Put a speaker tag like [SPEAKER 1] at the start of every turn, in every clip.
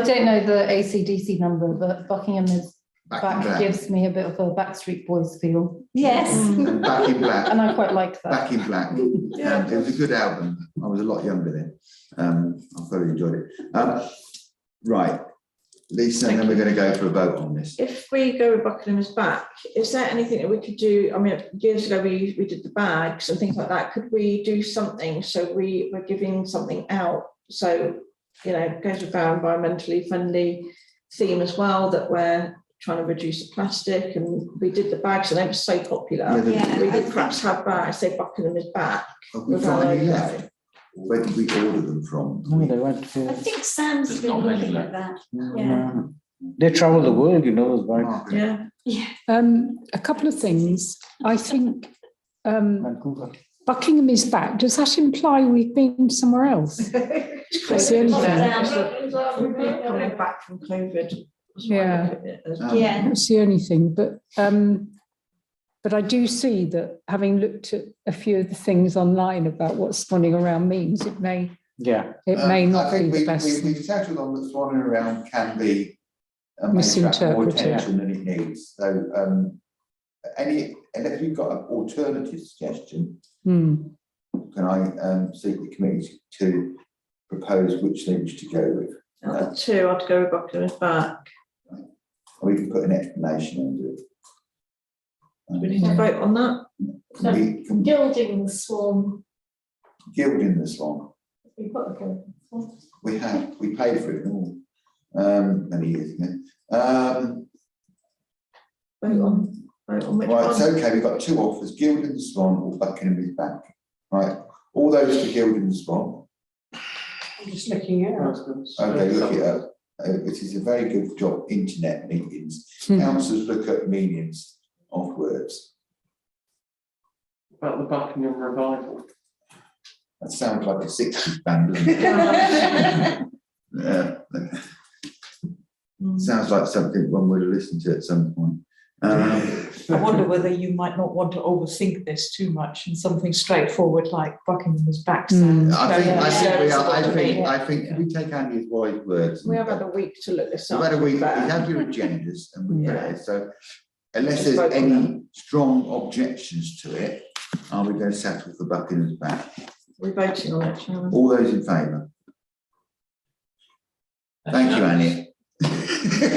[SPEAKER 1] I don't know the ACDC number, but Buckingham is,
[SPEAKER 2] in
[SPEAKER 1] back
[SPEAKER 2] black.
[SPEAKER 1] gives me a bit of a Backstreet Boys feel. Mm.
[SPEAKER 3] Yes.
[SPEAKER 2] And Back in Black,
[SPEAKER 1] And I quite like that.
[SPEAKER 2] Back in Black. Um, It was a good album. I was a lot younger then. Um, I thoroughly enjoyed it. Um, Right, Lisa, and then we're going to go for a vote on this.
[SPEAKER 4] If we go with Buckingham's back, is there anything that we could do? I mean, years ago, we, we did the bags and things like that. Could we do something? So we were giving something out. So, you know, goes with our environmentally friendly theme as well, that we're trying to reduce the plastic and we did the bags and they were so popular.
[SPEAKER 2] Whether-
[SPEAKER 3] Yeah.
[SPEAKER 4] We could perhaps have bags, say Buckingham is back.
[SPEAKER 2] Have we
[SPEAKER 4] with
[SPEAKER 2] got
[SPEAKER 4] our
[SPEAKER 2] any
[SPEAKER 4] logo.
[SPEAKER 2] left? Where did we order them from?
[SPEAKER 5] No, they went
[SPEAKER 3] I
[SPEAKER 5] to.
[SPEAKER 3] think Sam's
[SPEAKER 6] There's
[SPEAKER 3] been
[SPEAKER 6] not many
[SPEAKER 3] looking at that. Yeah.
[SPEAKER 5] Yeah. They travel the world, you know, those bikes.
[SPEAKER 2] Margaret.
[SPEAKER 4] Yeah.
[SPEAKER 7] Um, a couple of things. I think um,
[SPEAKER 5] Vancouver.
[SPEAKER 7] Buckingham is back. Does that imply we've been somewhere else? That's the only thing.
[SPEAKER 4] Coming back from COVID. was what I
[SPEAKER 7] Yeah.
[SPEAKER 4] look at it as.
[SPEAKER 2] Um,
[SPEAKER 3] Yeah.
[SPEAKER 7] That's the only thing. But um, but I do see that having looked at a few of the things online about what spawning around means, it may
[SPEAKER 5] Yeah,
[SPEAKER 7] it may
[SPEAKER 2] Um,
[SPEAKER 7] not
[SPEAKER 2] I
[SPEAKER 7] be
[SPEAKER 2] think
[SPEAKER 7] the
[SPEAKER 2] we-
[SPEAKER 7] best.
[SPEAKER 2] we- We've settled on that swanning around can be. uh, may attract More
[SPEAKER 7] Misinterpreted.
[SPEAKER 2] attention than it needs, so, um, any, unless we've got an alternative suggestion,
[SPEAKER 7] Hmm.
[SPEAKER 2] can I, um, seek the committee to propose which they wish to go with?
[SPEAKER 4] Out of uh, the two, I'd go with Buckingham's back.
[SPEAKER 2] And we can put an explanation under it.
[SPEAKER 4] We need to
[SPEAKER 2] Um,
[SPEAKER 4] vote on that.
[SPEAKER 2] Can we, can
[SPEAKER 3] Gilding the swarm.
[SPEAKER 2] gild in the swan,
[SPEAKER 3] We put a gilding swarm.
[SPEAKER 2] we have, we paid for it all, um, many years ago. Um,
[SPEAKER 4] Vote
[SPEAKER 8] Mm.
[SPEAKER 4] on, vote on which
[SPEAKER 2] Right, it's
[SPEAKER 4] one.
[SPEAKER 2] okay, we've got two offers, Guild and the Swan or Buckingham is back. Right, all those for Guild and the Swan, okay, look it up. Uh, It is a very good job, internet meetings,
[SPEAKER 7] Hmm.
[SPEAKER 2] councillors look at meanings of words.
[SPEAKER 9] About the Buckingham revival.
[SPEAKER 2] That sounds like a sixties band, doesn't it? Yeah,
[SPEAKER 4] Mm.
[SPEAKER 2] sounds like something one would have listened to at some point. Um,
[SPEAKER 8] I wonder whether you might not want to overthink this too much and something straightforward like Buckingham's back
[SPEAKER 7] Mm.
[SPEAKER 8] sounds.
[SPEAKER 2] I think, I
[SPEAKER 4] yeah,
[SPEAKER 2] think we
[SPEAKER 4] it's
[SPEAKER 2] are, I
[SPEAKER 4] got to
[SPEAKER 2] think,
[SPEAKER 4] be.
[SPEAKER 2] I think, can we take Andy's wise words?
[SPEAKER 4] We
[SPEAKER 2] and-
[SPEAKER 4] have had a week to look this
[SPEAKER 2] So
[SPEAKER 4] up.
[SPEAKER 2] whether we, we
[SPEAKER 4] but-
[SPEAKER 2] have your agendas and we put it,
[SPEAKER 4] Yeah.
[SPEAKER 2] as- so unless
[SPEAKER 4] Just
[SPEAKER 2] there's
[SPEAKER 4] vote on
[SPEAKER 2] any strong objections to it, are we going to settle for Buckingham's back?
[SPEAKER 4] We're voting on it, Chairman.
[SPEAKER 2] All those in favour? Thank you, Annie.
[SPEAKER 4] Can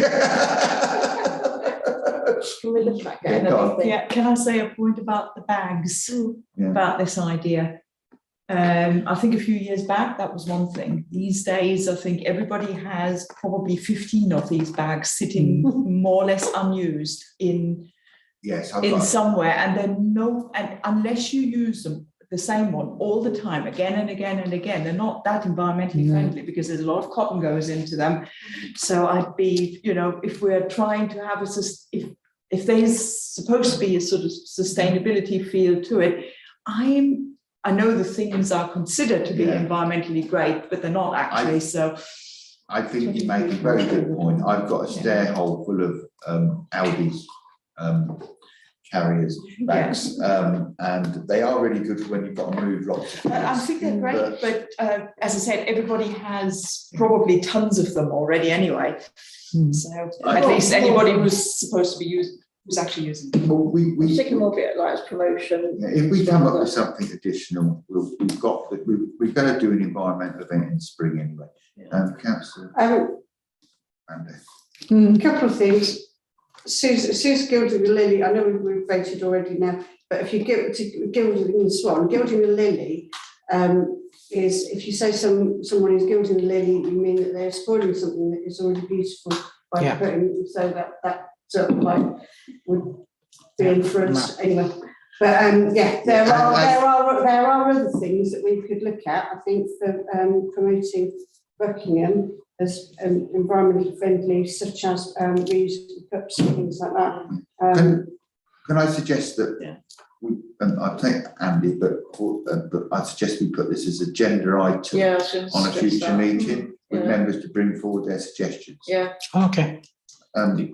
[SPEAKER 4] we look at
[SPEAKER 2] Yeah,
[SPEAKER 4] getting
[SPEAKER 2] go on.
[SPEAKER 4] another thing?
[SPEAKER 8] Yeah, can I say a point about the bags,
[SPEAKER 2] Yeah.
[SPEAKER 8] about this idea? Um, I think a few years back, that was one thing. These days, I think everybody has probably fifteen of these bags
[SPEAKER 7] Hmm.
[SPEAKER 8] sitting more or less unused in,
[SPEAKER 2] Yes, I've
[SPEAKER 8] in
[SPEAKER 2] got,
[SPEAKER 8] somewhere. And then no, and unless you use them, the same one all the time, again and again and again, they're not that environmentally
[SPEAKER 7] No.
[SPEAKER 8] friendly because there's a lot of cotton goes into them. So I'd be, you know, if we're trying to have a, sus- if, if there's supposed to be a sort of sustainability feel to it, I'm, I know the things are considered to be
[SPEAKER 2] Yeah.
[SPEAKER 8] environmentally great, but they're not actually, so.
[SPEAKER 2] I think you make a very good point. I've got a stair hole full of um Aldi's um carriers, bags, um, and they are really good when you've got to move lots of
[SPEAKER 8] Uh, I
[SPEAKER 2] things.
[SPEAKER 8] think they're
[SPEAKER 2] But-
[SPEAKER 8] great, but uh, as I said, everybody has probably tons of them already anyway.
[SPEAKER 7] Hmm.
[SPEAKER 8] So
[SPEAKER 2] I-
[SPEAKER 8] at least anybody who's supposed to be using, who's actually using them.
[SPEAKER 2] Well, We, we.
[SPEAKER 4] Sycamore bit like as promotion.
[SPEAKER 2] Yeah, If we come up with something additional, we'll, we've got, the- we, we've got to do an environmental event in spring anyway. Um, councillor
[SPEAKER 10] Um,
[SPEAKER 2] Brandon.
[SPEAKER 7] Hmm.
[SPEAKER 10] a couple of things. Sue's, Sue's gilding the lily, I know we've, we've voted already now, but if you give to gilding the swan, gilding the lily, um, is if you say some, someone is gilding the lily, you mean that they're spoiling something that is already beautiful by
[SPEAKER 5] Yeah.
[SPEAKER 10] putting, so that, that sort of like would be inference anyway. But, um, yeah, there
[SPEAKER 2] Yeah,
[SPEAKER 10] are,
[SPEAKER 2] I- I-
[SPEAKER 10] there are, there are other things that we could look at, I think, for, um, promoting Buckingham as um, environmentally friendly, such as um, reusable cups and things like that. Um,
[SPEAKER 2] Can I suggest that?
[SPEAKER 4] Yeah.
[SPEAKER 2] We, and I take Andy, but, uh, but I suggest we put this as a gender item
[SPEAKER 4] I was gonna
[SPEAKER 2] on a
[SPEAKER 4] suggest
[SPEAKER 2] future
[SPEAKER 4] that.
[SPEAKER 2] meeting with
[SPEAKER 4] Yeah.
[SPEAKER 2] members to bring forward their suggestions. Um,
[SPEAKER 4] Yeah,
[SPEAKER 5] Oh, okay,
[SPEAKER 2] Andy,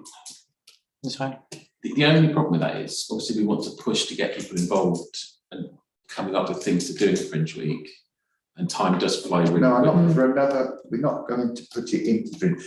[SPEAKER 5] that's fine.
[SPEAKER 6] The, the only problem with that is obviously we want to push to get people involved and coming up with things to do in Fringe Week. And time does fly really
[SPEAKER 2] no, I'm
[SPEAKER 6] quick.
[SPEAKER 2] not for another, we're not going to put it into,